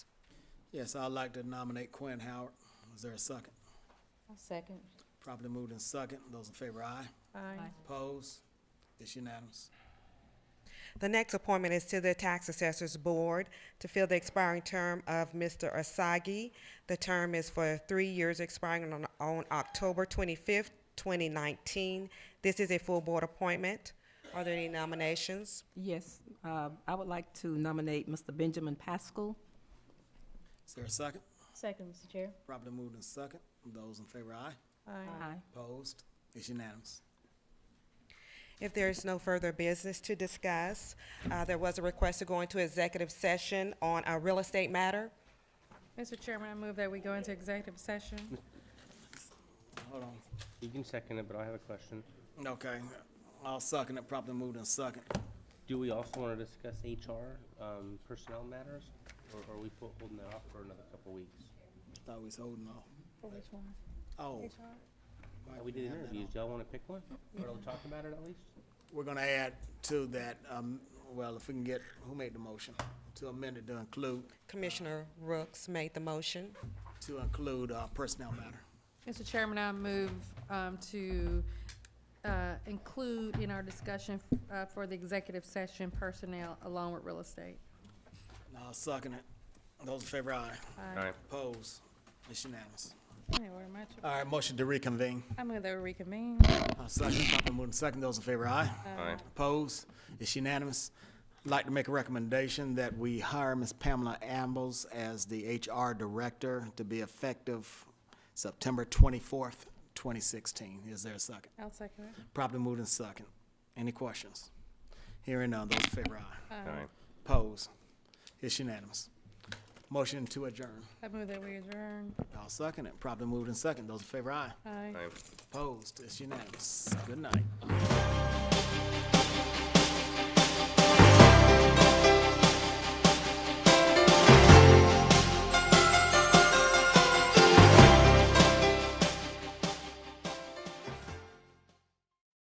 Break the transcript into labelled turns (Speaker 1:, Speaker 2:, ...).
Speaker 1: Yes, I'd like to nominate Quinn Howard. Is there a second?
Speaker 2: I'll second.
Speaker 1: Properly moved in second. Those in favor, aye.
Speaker 2: Aye.
Speaker 1: Opposed? It's unanimous.
Speaker 3: The next appointment is to the Tax Assessors Board to fill the expiring term of Mr. Asagi. The term is for three years expiring on, on October twenty-fifth, twenty nineteen. This is a full board appointment. Are there any nominations?
Speaker 4: Yes, uh, I would like to nominate Mr. Benjamin Pascal.
Speaker 1: Is there a second?
Speaker 2: Second, Mr. Chair.
Speaker 1: Properly moved in second. Those in favor, aye.
Speaker 4: Aye.
Speaker 1: Opposed? It's unanimous.
Speaker 3: If there is no further business to discuss, uh, there was a request to go into executive session on a real estate matter.
Speaker 5: Mr. Chairman, I move that we go into executive session.
Speaker 1: Hold on.
Speaker 6: You can second it, but I have a question.
Speaker 1: Okay, I'll second it. Properly moved in second.
Speaker 6: Do we also want to discuss HR, um, personnel matters? Or are we fo- holding that off for another couple weeks?
Speaker 1: Thought we was holding off.
Speaker 2: For which one?
Speaker 1: Oh.
Speaker 6: Uh, We did interviews. Do y'all want to pick one? Or we'll talk about it at least?
Speaker 1: We're gonna add to that, um, well, if we can get, who made the motion? To amend it to include,
Speaker 3: Commissioner Rooks made the motion.
Speaker 1: to include, uh, personnel matter.
Speaker 5: Mr. Chairman, I move um, to uh, include in our discussion uh, for the executive session personnel along with real estate.
Speaker 1: I'll second it. Those in favor, aye.
Speaker 6: Aye.
Speaker 1: Opposed? It's unanimous.
Speaker 5: Thank you very much.
Speaker 1: All right, motion to reconvene.
Speaker 5: I move that we reconvene.
Speaker 1: Uh, Second, properly moved in second. Those in favor, aye. Opposed? It's unanimous. I'd Like to make a recommendation that we hire Ms. Pamela Ambles as the HR Director to be effective September twenty-fourth, twenty sixteen. Is there a second?
Speaker 5: I'll second it.
Speaker 1: Properly moved in second. Any questions? Hearing none, those in favor, aye.
Speaker 6: Aye.
Speaker 1: Pose. It's unanimous. Motion to adjourn.
Speaker 5: I move that we adjourn.
Speaker 1: I'll second it. Properly moved in second. Those in favor, aye.
Speaker 5: Aye.
Speaker 1: Opposed. It's unanimous. Good night.